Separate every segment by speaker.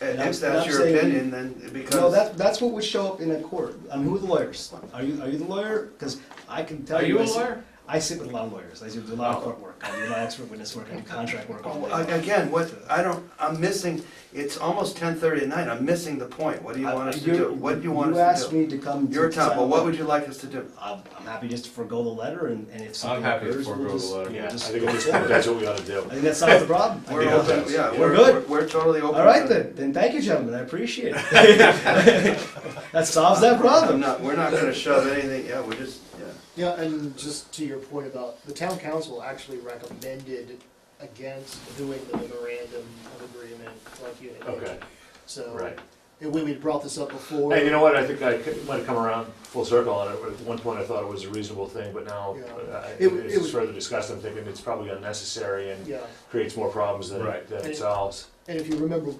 Speaker 1: And
Speaker 2: I'm-
Speaker 1: if
Speaker 2: and
Speaker 1: that's
Speaker 2: I'm
Speaker 1: your
Speaker 2: saying-
Speaker 1: opinion, then it
Speaker 2: No,
Speaker 1: becomes,
Speaker 2: that, that's what would show up in a court. I mean, who are the lawyers? Are you, are you the lawyer? Because I can tell
Speaker 3: Are
Speaker 2: you.
Speaker 3: you
Speaker 2: I
Speaker 3: a
Speaker 2: sit-
Speaker 3: lawyer? Oh.
Speaker 2: I sit with a lot of lawyers. I do a lot of court work. I do a lot of expert witness work. I do contract work. all day
Speaker 1: Well,
Speaker 2: long.
Speaker 1: again, what, I don't, I'm missing, it's almost ten thirty at night, I'm missing the point. What do you
Speaker 2: I-
Speaker 1: want us to
Speaker 2: you're-
Speaker 1: do? What do you want
Speaker 2: you
Speaker 1: us
Speaker 2: asked
Speaker 1: to
Speaker 2: me
Speaker 1: do?
Speaker 2: to come. to
Speaker 1: Your time,
Speaker 2: decide
Speaker 1: well, what
Speaker 2: whether-
Speaker 1: would you like us to do?
Speaker 2: I'm, I'm happy just to forego the letter, and, and if something
Speaker 3: happy to
Speaker 2: occurs, we'll
Speaker 3: forego the
Speaker 2: just-
Speaker 3: letter.
Speaker 2: we'll
Speaker 4: Yeah, I
Speaker 2: just-
Speaker 4: think at this point, that's what we ought to do.
Speaker 2: I think that solves the problem. I
Speaker 1: We're
Speaker 2: think
Speaker 1: open,
Speaker 2: that's-
Speaker 1: yeah,
Speaker 2: We're
Speaker 1: we're,
Speaker 2: good.
Speaker 1: we're- we're totally open.
Speaker 2: All right
Speaker 1: to-
Speaker 2: then, then thank you, gentlemen. I appreciate it. that solves that
Speaker 1: I'm
Speaker 2: problem.
Speaker 1: not, we're not gonna shove anything, yeah, we're just, yeah.
Speaker 5: Yeah, and just to your point about, the town council actually recommended against doing the memorandum of agreement like you had
Speaker 4: Okay,
Speaker 5: mentioned. So.
Speaker 4: right.
Speaker 5: And when we brought this up before.
Speaker 4: Hey, you know what, I think I could- might have come around full circle on it, at one point I thought it was a reasonable thing, but now,
Speaker 5: Yeah.
Speaker 4: uh, I-
Speaker 5: It w-
Speaker 4: as
Speaker 5: it
Speaker 4: it's
Speaker 5: was-
Speaker 4: further discussed, I'm thinking it's probably unnecessary and
Speaker 5: Yeah.
Speaker 4: creates more problems than
Speaker 3: Right.
Speaker 4: it- than
Speaker 5: And-
Speaker 4: it solves.
Speaker 5: And if you remember,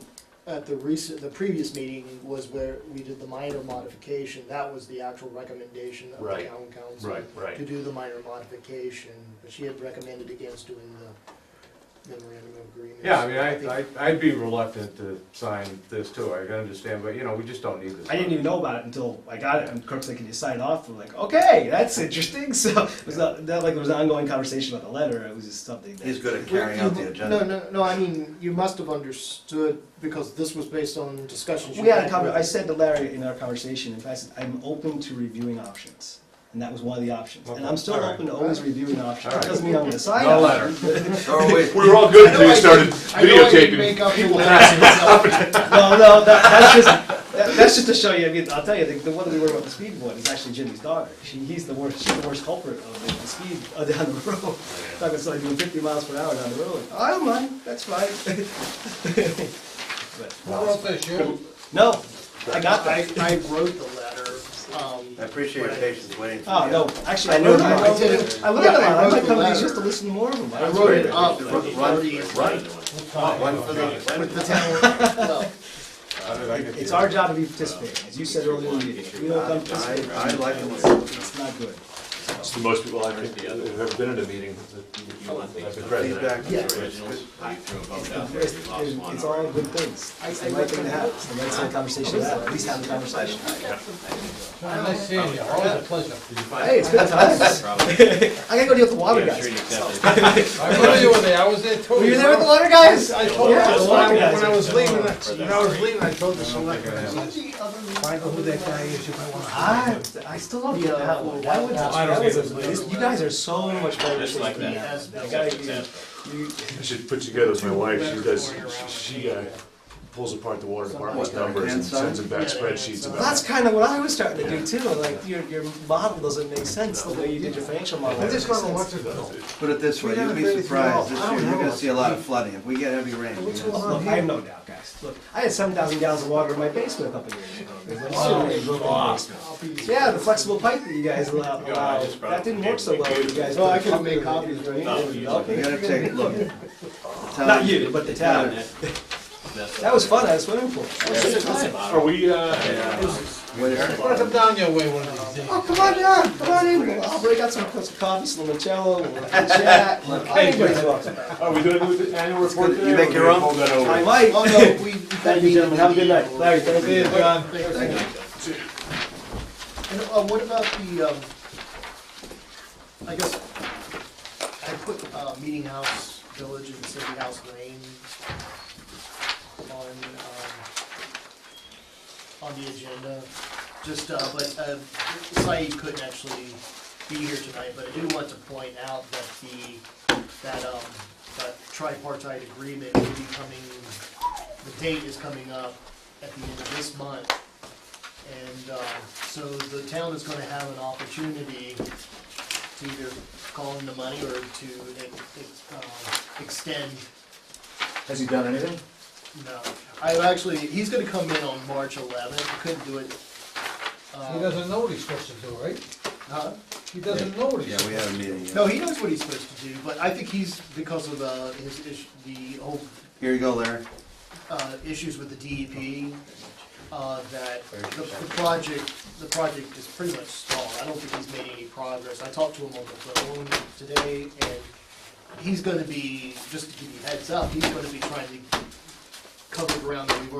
Speaker 5: at the recent, the previous meeting was where we did the minor modification, that was the actual recommendation of the
Speaker 4: Right.
Speaker 5: town council. To
Speaker 4: Right,
Speaker 5: do the minor modification, but she had recommended against doing the memorandum of agreement.
Speaker 3: Yeah, I mean,
Speaker 5: think-
Speaker 3: I, I, I'd be reluctant to sign this too, I can understand, but you know, we just don't need this.
Speaker 2: I didn't even know about it until I got it. And Kirk's like, "Can you sign off?" I'm like, "Okay, that's interesting." So it was not, not like it was an ongoing conversation about the letter. It was just something that
Speaker 1: He's good at carrying out the
Speaker 5: No,
Speaker 1: agenda.
Speaker 5: no, no, I mean, you must have understood, because this was based on discussions you
Speaker 2: we had a
Speaker 5: had
Speaker 2: conver- I
Speaker 5: with.
Speaker 2: said to Larry in our conversation, in fact, I said, I'm open to reviewing options. And that was one of the options. And I'm still
Speaker 3: Okay. All right.
Speaker 2: open to always reviewing options.
Speaker 3: All right.
Speaker 2: Doesn't mean I'm going to sign
Speaker 3: No
Speaker 2: on.
Speaker 3: letter.
Speaker 1: Oh, wait,
Speaker 4: We were all good until you started
Speaker 5: I know I didn't
Speaker 4: videotaping.
Speaker 5: make up the letter myself.
Speaker 2: No, no, that, that's just that, that's just to show you. I mean, I'll tell you, the, the one that we worry about the speedboard is actually Jimmy's daughter. She, he's the worst. She's the worst culprit of the, the speed uh, down the road. Talking about doing 50 miles per hour down the road. I don't mind. That's fine. but no, I got
Speaker 5: I,
Speaker 2: that.
Speaker 5: I wrote the letter, um.
Speaker 1: I appreciate your patience waiting. for
Speaker 2: Oh
Speaker 1: you.
Speaker 2: no, actually, I,
Speaker 5: I know
Speaker 2: learned-
Speaker 5: you-
Speaker 2: I,
Speaker 5: I did it.
Speaker 2: I learned a
Speaker 5: Yeah,
Speaker 2: lot.
Speaker 5: I
Speaker 2: I
Speaker 5: wrote
Speaker 2: might
Speaker 5: the
Speaker 2: come to these
Speaker 5: letter.
Speaker 2: just to listen to more of them.
Speaker 5: I wrote it
Speaker 1: great.
Speaker 5: up
Speaker 1: Run,
Speaker 5: with the
Speaker 1: run,
Speaker 5: thirtieth
Speaker 1: run. One for the,
Speaker 5: with the town. no.
Speaker 3: How did I get
Speaker 2: It's
Speaker 3: the-
Speaker 2: our job to be participating, as you said earlier in the meeting. If you don't come participate,
Speaker 1: I- I like it.
Speaker 2: It's not good.
Speaker 4: It's the most people I've have ever been in a meeting that you- I've been president.
Speaker 1: feedback.
Speaker 5: Yeah.
Speaker 2: It's it's all good things.
Speaker 5: I-
Speaker 2: It's
Speaker 5: I
Speaker 2: the right
Speaker 5: read
Speaker 2: thing to
Speaker 5: the
Speaker 2: have. It's the right sort of conversation to have. At least have a conversation.
Speaker 6: Nice seeing you, always a pleasure.
Speaker 2: Hey, it's been times. I gotta go deal with the water guys.
Speaker 6: I remember you were there, I was there too.
Speaker 2: Were you there with the water guys?
Speaker 6: I told
Speaker 2: Yeah, the
Speaker 6: this,
Speaker 2: water
Speaker 6: when I-
Speaker 2: guys.
Speaker 6: when I was leaving, when I was leaving, I told the selectmen, I said, find out who that guy is, you might wanna. hire
Speaker 2: I,
Speaker 6: him."
Speaker 2: I still love you. That one. That was, that was, this- you guys are so much better.
Speaker 7: Just like
Speaker 2: than
Speaker 7: that.
Speaker 2: us. I gotta give you- you-
Speaker 4: I should put together with my wife, she does, she she, uh, pulls apart the water department's numbers and sends them back spreadsheets about.
Speaker 2: That's kind of what I was starting to do too. Like your, your model doesn't make sense the way you did your financial model.
Speaker 6: I just wanna watch it though.
Speaker 1: Put it this way, you'll be surprised, this year, you're gonna see a lot of flooding, if we get heavy rain. you're
Speaker 6: What's
Speaker 1: gonna-
Speaker 7: Oh,
Speaker 6: going on
Speaker 2: Look, I have
Speaker 6: here?
Speaker 2: no doubt, guys. Look, I had seven thousand gallons of water in my basement a couple years ago. There's a
Speaker 7: Oh,
Speaker 2: lot of rain broke in my basement. Yeah, the flexible pipe that you guys allow,
Speaker 7: You know, I
Speaker 2: allow-
Speaker 7: just brought
Speaker 2: that didn't work so well. You guys.
Speaker 5: Well, Oh, I
Speaker 2: put a
Speaker 5: could've made
Speaker 2: pump in
Speaker 5: copies,
Speaker 2: it.
Speaker 7: right?
Speaker 2: You know,
Speaker 1: You gotta take, look.
Speaker 2: Not you, but the town. That was fun. I was swimming pool.
Speaker 4: Are we, uh,
Speaker 6: I wanna come down your way one of these days.
Speaker 2: Oh, come on down, come on in. We'll- I'll break out some cups of coffee, some limoncello, we'll have a chat. I enjoy talking.
Speaker 4: are we doing the annual report
Speaker 1: good.
Speaker 4: today?
Speaker 1: You
Speaker 4: or
Speaker 1: make
Speaker 4: we
Speaker 1: your own?
Speaker 4: Hold that over.
Speaker 2: I might.
Speaker 5: Oh, no, we.
Speaker 2: Thank you, gentlemen. Have a good night. Larry, thank
Speaker 6: See you,
Speaker 2: you.
Speaker 6: John.
Speaker 5: Thank you. And, uh, what about the, um, I guess, I put, uh, Meeting House Village and City House Lane on, um, on the agenda, just, uh, but, uh, Saeed couldn't actually be here tonight, but I do want to point out that the, that, um, that tripartite agreement will be coming, the date is coming up at the end of this month. And uh, so the town is gonna have an opportunity to either call in the money or to ex- ex- uh, extend,
Speaker 2: Has he done anything?
Speaker 5: no. I actually, he's gonna come in on March eleventh, couldn't do it. uh,
Speaker 6: He doesn't know what he's supposed to do, right?
Speaker 5: huh?
Speaker 6: He doesn't know what he's.
Speaker 1: Yeah, we had a meeting. yeah.
Speaker 5: No, he knows what he's supposed to do, but I think he's, because of uh, his, ish- the whole
Speaker 1: Here you go, Larry.
Speaker 5: uh, issues with the DEP, uh, that the the project, the project is pretty much stalled. I don't think he's made any progress. I talked to him on the phone today, and he's gonna be, just to give you a heads up, he's gonna be trying to cover ground that we've already